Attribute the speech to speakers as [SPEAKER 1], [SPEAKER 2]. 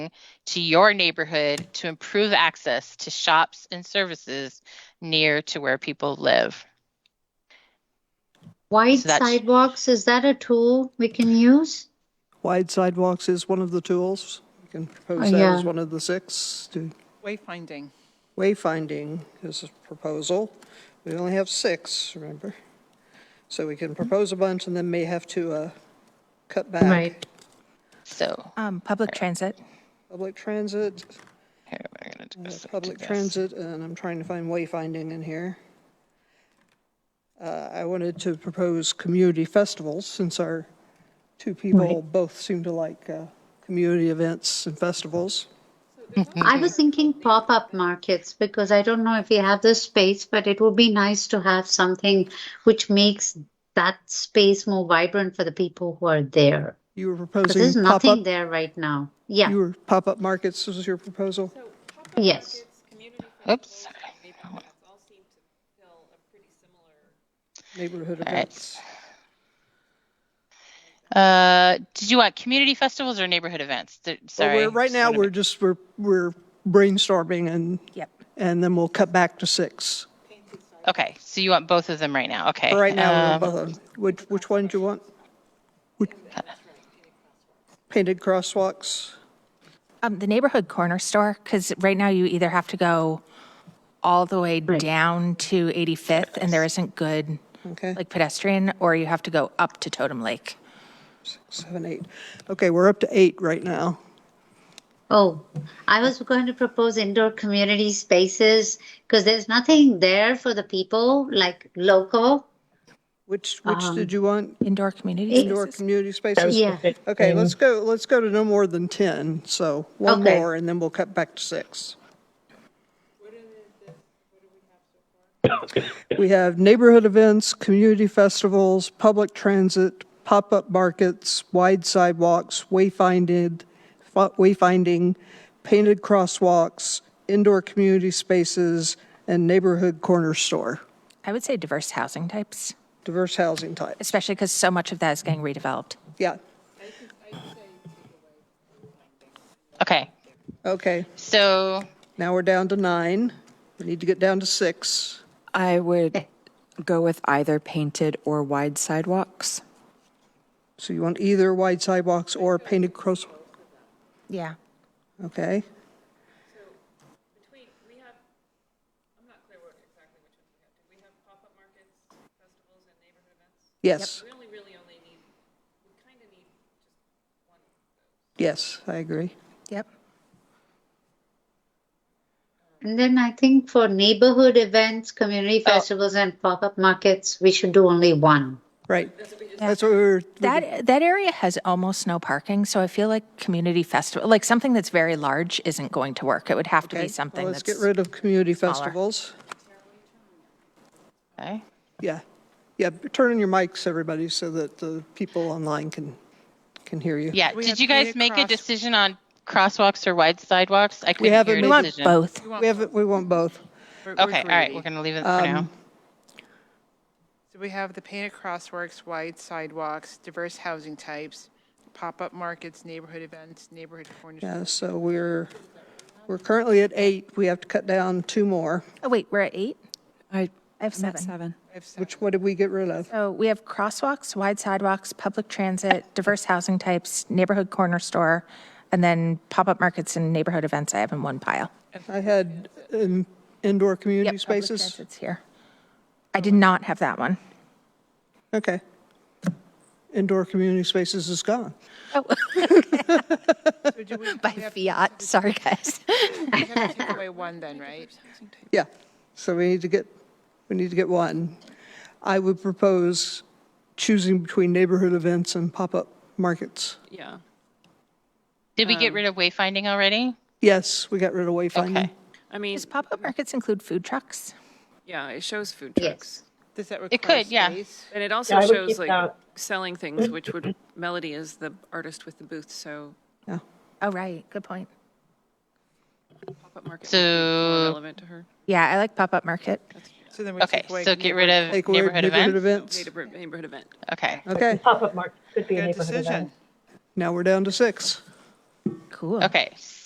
[SPEAKER 1] to your neighborhood to improve access to shops and services near to where people live.
[SPEAKER 2] Wide
[SPEAKER 1] So that's-
[SPEAKER 2] sidewalks, is that a tool we can use?
[SPEAKER 3] Wide sidewalks is one of the tools. We can propose
[SPEAKER 2] Oh,
[SPEAKER 3] that as
[SPEAKER 2] yeah.
[SPEAKER 3] one of the six. To
[SPEAKER 4] Wayfinding.
[SPEAKER 3] Wayfinding is a proposal. We only have six, remember? So we can propose a bunch and then may have to uh, cut back.
[SPEAKER 2] Right.
[SPEAKER 1] So
[SPEAKER 5] Um, public transit.
[SPEAKER 3] Public transit, Uh,
[SPEAKER 1] here, we're gonna do this.
[SPEAKER 3] public transit, and I'm trying to find wayfinding in here. Uh, I wanted to propose community festivals, since our two people both seem to like uh, community events and festivals.
[SPEAKER 2] I was thinking pop-up markets because I don't know if we have the space, but it would be nice to have something which makes that space more vibrant for the people who are there.
[SPEAKER 3] You were
[SPEAKER 2] Because there's
[SPEAKER 3] proposing
[SPEAKER 2] nothing
[SPEAKER 3] pop-up,
[SPEAKER 2] there right now.
[SPEAKER 3] you
[SPEAKER 2] Yeah,
[SPEAKER 3] were pop-up markets was your proposal?
[SPEAKER 2] yes.
[SPEAKER 1] Oops.
[SPEAKER 3] Neighborhood
[SPEAKER 1] All right.
[SPEAKER 3] events.
[SPEAKER 1] Uh, did you want community festivals or neighborhood events? Th-
[SPEAKER 3] Well,
[SPEAKER 1] Sorry.
[SPEAKER 3] we're- Right
[SPEAKER 1] just
[SPEAKER 3] now,
[SPEAKER 1] wanna
[SPEAKER 3] we're just, we're, we're brainstorming and,
[SPEAKER 5] Yep.
[SPEAKER 3] and then we'll cut back to six.
[SPEAKER 1] make- Okay, so you want both of them right now? Okay.
[SPEAKER 3] But Right now,
[SPEAKER 1] um,
[SPEAKER 3] we're both on- which, which one do you want? Which- Painted crosswalks?
[SPEAKER 5] Um, the neighborhood corner store, because right now you either have to go all the way down to 85th and there isn't good
[SPEAKER 3] Okay,
[SPEAKER 5] like pedestrian, or you have to go up to Totem Lake.
[SPEAKER 3] seven, eight. Okay, we're up to eight right now.
[SPEAKER 2] Oh, I was going to propose indoor community spaces because there's nothing there for the people, like local.
[SPEAKER 3] Which, which did you want?
[SPEAKER 5] Indoor community
[SPEAKER 3] Indoor
[SPEAKER 5] spaces.
[SPEAKER 3] community spaces?
[SPEAKER 2] Yeah.
[SPEAKER 3] Okay, let's go, let's go to no more than 10, so one
[SPEAKER 2] Okay.
[SPEAKER 3] more, and then we'll cut back to six. We have neighborhood events, community festivals, public transit, pop-up markets, wide sidewalks, wayfinded, fa- wayfinding, painted crosswalks, indoor community spaces, and neighborhood corner store,
[SPEAKER 5] I would say diverse housing types,
[SPEAKER 3] diverse housing types.
[SPEAKER 5] especially because so much of that is getting redeveloped.
[SPEAKER 3] Yeah,
[SPEAKER 1] Okay,
[SPEAKER 3] okay,
[SPEAKER 1] so
[SPEAKER 3] now we're down to nine. We need to get down to six.
[SPEAKER 6] I would go with either painted or wide sidewalks.
[SPEAKER 3] So you want either wide sidewalks or painted cross,
[SPEAKER 5] Yeah.
[SPEAKER 3] okay? Yes. We only, really only need, we kind of need just one of those. Yes, I agree.
[SPEAKER 5] Yep.
[SPEAKER 2] And then I think for neighborhood events, community festivals, and pop-up markets, we should do only one.
[SPEAKER 3] Right. That's what we were,
[SPEAKER 5] That, that area has almost no parking, so I feel like community festival, like something that's very large isn't going to work. It would have to
[SPEAKER 3] okay,
[SPEAKER 5] be
[SPEAKER 3] well,
[SPEAKER 5] something
[SPEAKER 3] let's
[SPEAKER 5] that's.
[SPEAKER 3] get rid of community festivals.
[SPEAKER 1] okay.
[SPEAKER 3] Yeah, yeah, turn on your mics, everybody, so that the people online can, can hear you.
[SPEAKER 1] Yeah,
[SPEAKER 4] We
[SPEAKER 1] did
[SPEAKER 4] had
[SPEAKER 1] you guys
[SPEAKER 4] created
[SPEAKER 1] make a
[SPEAKER 4] cross-
[SPEAKER 1] decision on crosswalks or wide sidewalks? I couldn't
[SPEAKER 3] haven't
[SPEAKER 1] hear
[SPEAKER 3] made- We
[SPEAKER 5] We
[SPEAKER 1] a
[SPEAKER 3] want
[SPEAKER 5] want
[SPEAKER 1] decision.
[SPEAKER 5] both.
[SPEAKER 3] We have, we want both.
[SPEAKER 4] We're- we're
[SPEAKER 1] Okay, all right,
[SPEAKER 4] greedy.
[SPEAKER 1] we're gonna leave it for
[SPEAKER 3] Um,
[SPEAKER 1] now.
[SPEAKER 4] So we have the painted crosswalks, wide sidewalks, diverse housing types, pop-up markets, neighborhood events, neighborhood corners.
[SPEAKER 3] Yeah, so we're, we're currently at eight. We have to cut down two more.
[SPEAKER 5] Oh, wait, we're at eight?
[SPEAKER 6] I
[SPEAKER 5] I have seven.
[SPEAKER 6] seven.
[SPEAKER 3] Which, what did we get rid of?
[SPEAKER 5] So we have crosswalks, wide sidewalks, public transit, diverse housing types, neighborhood corner store, and then pop-up markets and neighborhood events I have in one pile.
[SPEAKER 3] I had um, indoor community
[SPEAKER 5] Yep, public
[SPEAKER 3] spaces.
[SPEAKER 5] transit's here. I did not have that one.
[SPEAKER 3] Okay. Indoor community spaces is gone.
[SPEAKER 4] So do we we
[SPEAKER 5] By
[SPEAKER 4] have-
[SPEAKER 5] fiat, sorry, guys.
[SPEAKER 4] we have to take away one then, right?
[SPEAKER 3] Yeah, so we need to get, we need to get one. I would propose choosing between neighborhood events and pop-up markets.
[SPEAKER 7] Yeah.
[SPEAKER 1] Did we
[SPEAKER 3] um,
[SPEAKER 1] get rid of wayfinding already?
[SPEAKER 3] Yes, we got rid of wayfinding.
[SPEAKER 1] Okay.
[SPEAKER 7] I mean,
[SPEAKER 5] Does pop-up markets include food trucks?
[SPEAKER 7] yeah, it shows food
[SPEAKER 2] Yes.
[SPEAKER 7] trucks.
[SPEAKER 4] Does that
[SPEAKER 1] It
[SPEAKER 4] require
[SPEAKER 1] could, yeah.
[SPEAKER 4] space?
[SPEAKER 7] And it also shows like selling things, which would, Melody is the artist with the booth, so
[SPEAKER 3] Yeah.
[SPEAKER 5] Oh, right, good point.
[SPEAKER 7] pop-up market might be
[SPEAKER 1] So-
[SPEAKER 7] more relevant to her.
[SPEAKER 5] Yeah, I like pop-up market.
[SPEAKER 4] So then we
[SPEAKER 1] Okay,
[SPEAKER 4] take away.
[SPEAKER 1] so get rid of
[SPEAKER 3] Take away
[SPEAKER 1] neighborhood events?
[SPEAKER 3] events.
[SPEAKER 7] Neighborhood neighborhood event.
[SPEAKER 1] Okay,
[SPEAKER 3] Okay,
[SPEAKER 8] Pop-up market could be a
[SPEAKER 4] Good
[SPEAKER 8] neighborhood event.
[SPEAKER 4] decision.
[SPEAKER 3] now we're down to six.
[SPEAKER 5] Cool.
[SPEAKER 1] Okay,